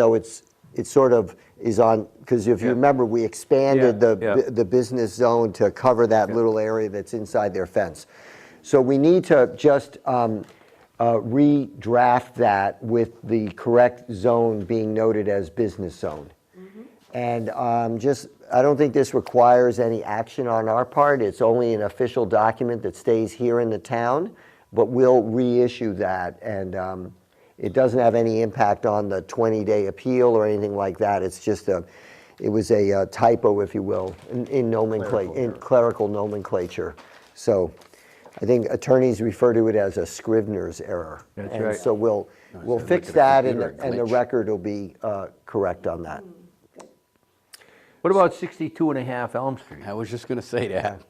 So it's, it sort of is on, because if you Yeah. remember, we expanded Yeah, the, yeah. the business zone to cover that little area that's inside their fence. So we need to just um, uh, redraft that with the correct zone being noted as business zone. And um, just, I don't think this requires any action on our part. It's only an official document that stays here in the town, but we'll reissue that. And um, it doesn't have any impact on the 20-day appeal or anything like that. It's just a, it was a uh, typo, if you will, in- in nomenclature, in clerical nomenclature. So I think attorneys refer to it as a Scrivener's error. That's And right. so we'll, we'll said, fix look at that a and the computer and the glitch. record will be uh, correct on that. What about 62 and a half Elm Street? I was just going to say that.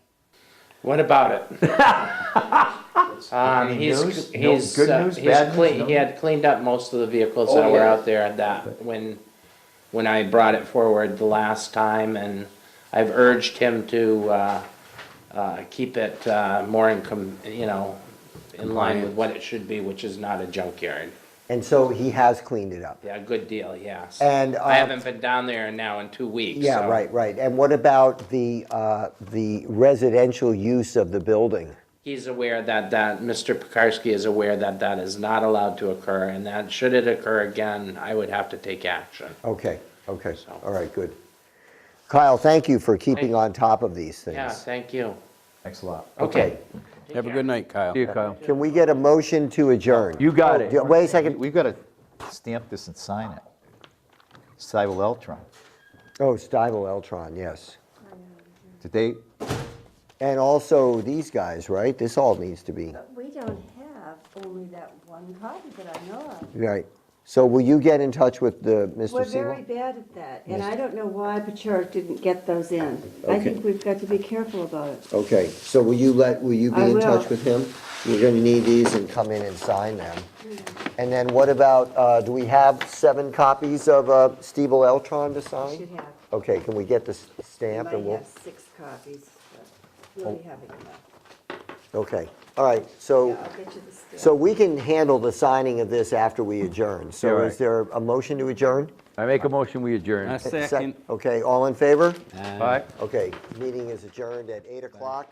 What about it? Um, news? he's, No he's, good uh, news, he's bad news, no clean, he news? had cleaned up most of the vehicles Oh, that were yeah. out there at that, when, when I brought it forward the last time, and I've urged him to, uh, uh, keep it, uh, more in com, you know, in line with what it should be, which is not a junkyard. And so he has cleaned it up. Yeah, good deal, yes. And, uh, I haven't been down there now in two weeks, Yeah, so- right, right. And what about the, uh, the residential use of the building? He's aware that that, Mr. Pekarsky is aware that that is not allowed to occur, and that should it occur again, I would have to take action. Okay, okay, all right, good. Kyle, thank you for keeping on top of these Yeah, things. thank you. Thanks a lot. Okay. Have a good night, Kyle. See you, Kyle. Can we get a motion to adjourn? You got Oh, it. yeah, Wait a second. We've got to stamp this and sign it. Cybel Eltron. Oh, Stivel Eltron, yes. Did they, And also these guys, right? This all needs to be, But we don't have only that one copy that I know of. right. So will you get in touch with the, We're Mr. very Siegel? bad at that, and I don't know why Pechoric didn't get those in. I Okay. think we've got to be careful about it. Okay, so will you let, will you be I in will. touch with him? You're gonna need these and come in and sign them. And then what about, uh, do we have seven copies of uh, Steve Eltron to We should sign? have, Okay, can we get the s- we stamp and might we'll, have six copies, but really having enough. okay, all right, so, Yeah, I'll get you the stamp. so we can handle the signing of this after we adjourn. Yeah, So right. is there a motion to adjourn? I make a motion, we adjourn. Second. Okay, all in favor? Bye. Okay, meeting is adjourned at 8 o'clock.